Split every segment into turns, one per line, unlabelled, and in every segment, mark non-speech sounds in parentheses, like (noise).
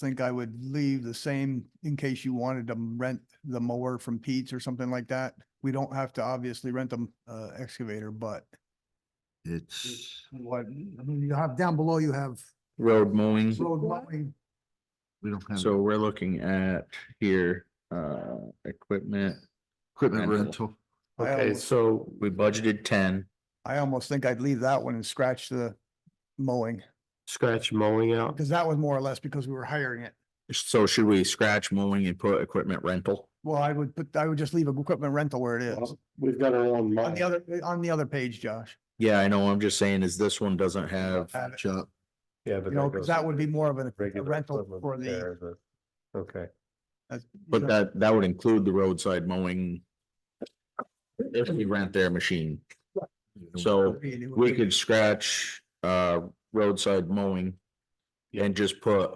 think I would leave the same in case you wanted to rent the mower from Pete's or something like that. We don't have to obviously rent them uh excavator, but
It's
what, I mean, you have down below, you have
road mowing.
road mowing.
we don't have
So we're looking at here, uh, equipment.
equipment
rental.
rental.
I
Okay,
almost-
so we budgeted ten,
I almost think I'd leave that one and scratch the mowing,
scratch mowing out.
because that was more or less because we were hiring it.
so should we scratch mowing and put equipment rental?
Well, I would, put I would just leave equipment rental where it is.
We've got our own
On the
money.
other, on the other page, Josh,
Yeah, I know, I'm just saying is this one doesn't have,
Have it.
Shop.
Yeah,
you
but
know, because that would be more of an- a
regular
rental
equipment
for the.
there, but- Okay,
that's-
but that, that would include the roadside mowing. If we rent their machine, so we could scratch, uh, roadside mowing. And just put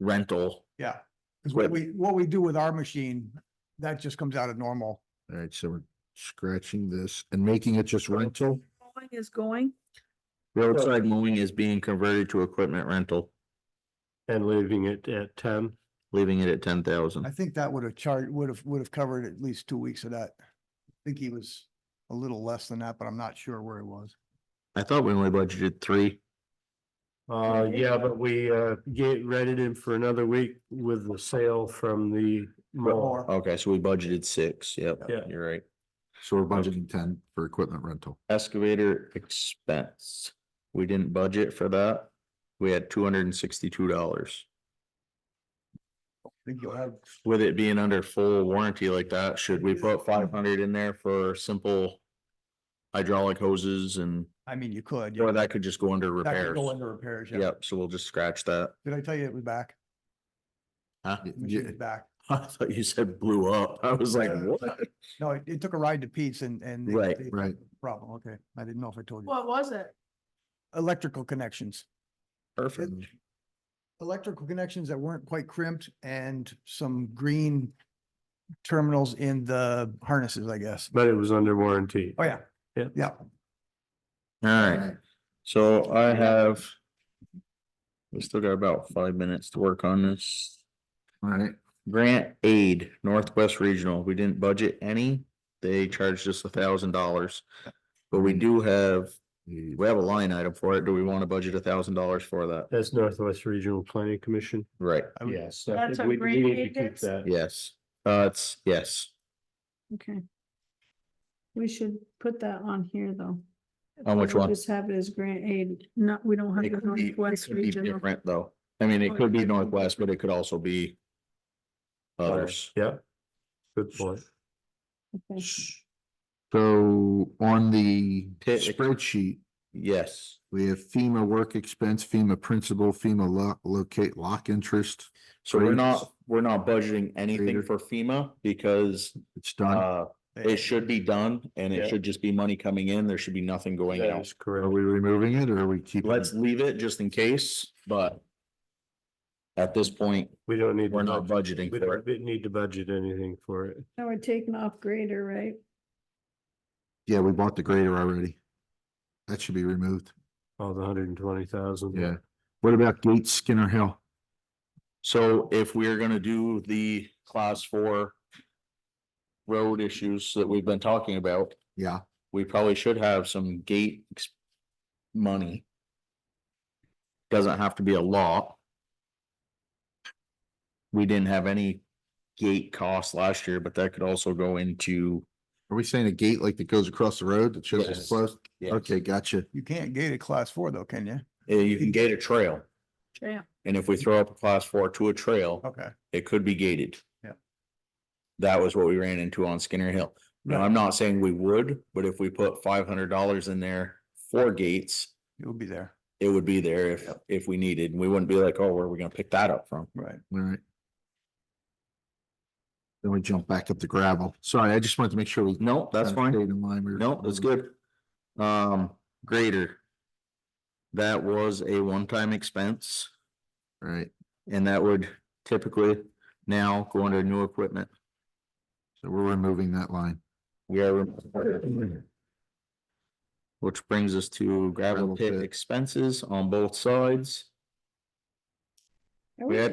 rental,
Yeah, because what
Right.
we, what we do with our machine, that just comes out of normal.
All right, so we're scratching this and making it just rental.
Mowing is going,
roadside mowing is being converted to equipment rental,
and leaving it at ten.
leaving it at ten
I
thousand.
think that would have charged, would have, would have covered at least two weeks of that. I think he was a little less than that, but I'm not sure where he was.
I thought we only budgeted three.
Uh, yeah, but we, uh, get, rented him for another week with the sale from the mower.
Or,
Okay, so we budgeted six, yep.
Yeah.
You're right.
So we're budgeting ten for equipment rental.
Excavator expense, we didn't budget for that. We had two hundred and sixty-two dollars.
I think you'll have,
With it being under full warranty like that, should we put five hundred in there for simple hydraulic hoses and,
I mean, you could. yeah.
or that could just go under
That could
repairs?
Go into repairs, yeah.
Yep, so we'll just scratch that. (laughs)
Did I tell you it was back?
Huh?
Y- yeah,
Machine's back.
I thought you said blew up. I was like,
Yeah.
what?
No, it, it took a ride to Pete's and, and. they-
Right,
they-
right.
Problem, okay. I didn't know if I told you.
what was it?
Electrical connections.
Perfect.
electrical connections that weren't quite crimped and some green terminals in the harnesses, I guess.
But it was under warranty.
Oh, yeah.
Yeah.
Yeah.
All right, so I have. We still got about five minutes to work on this.
All right,
Grant aid, Northwest Regional, we didn't budget any, they charged us a thousand dollars. But we do have,
the-
we have a line item for it, do we wanna budget a thousand dollars for that?
That's Northwest Regional Planning Commission.
Right,
I would-
I
That's
think
a
we- we
great
need to
idea.
keep that.
yes, uh, it's, yes,
Okay. We should put that on here, though.
On which
We'll
one?
Just have it as grant aid, not, we don't have
it
the
could be, it
Northwest
could be
regional.
different though, I mean, it could be Northwest, but it could also be. Others,
Yeah. Good point.
Okay.
So on the
Pit-
spreadsheet,
yes,
we have FEMA work expense, FEMA principal, FEMA lock, locate lock interest.
so we're
Great.
not, we're not budgeting anything
Greater.
for FEMA, because,
It's done.
uh,
They-
it should be done. And
Yeah.
it should just be money coming in, there should be nothing going out.
That's correct.
Are we removing it or are we keeping? it?
Let's leave it just in case, but at this point,
We don't need. to
we're not
budget.
budgeting
We
for
don't
it.
we need to budget anything for it.
Now we're taking off grader, right?
Yeah, we bought the grader already. That should be removed.
All the hundred and twenty thousand.
Yeah. What about Gates Skinner Hill?
So if we're gonna do the class four road issues that we've been talking about,
Yeah.
we probably should have some gate ex- money. Doesn't have to be a lot. We didn't have any gate costs last year, but that could also go into.
Are we saying a gate like that goes across the road that shows
Yes.
it's closed?
Yeah.
Okay, gotcha.
You can't gate a class four though, can you?
Uh, You can gate a trail,
Yeah.
and if we throw up a class four to a trail,
Okay.
it could be gated.
Oh. Yeah.
That was what we ran into on Skinner Hill. Now, I'm not saying we would, but if we put five hundred dollars in there for gates,
It will be there.
it would be there if, if we needed. And we wouldn't be like, oh, where are we gonna pick that up from?
Right.
All right. Then we jump back up to gravel. Sorry, I just wanted to make sure. we
No, that's
kinda
fine.
stayed in line. We were-
No, that's good. Um, grader. That was a one-time expense
All Right.
and that would typically now go under new equipment.
So we're removing that line.
We are. rem- Which brings us to gravel
Gravel
pit
pit.
expenses on both sides.
I
We
wish
had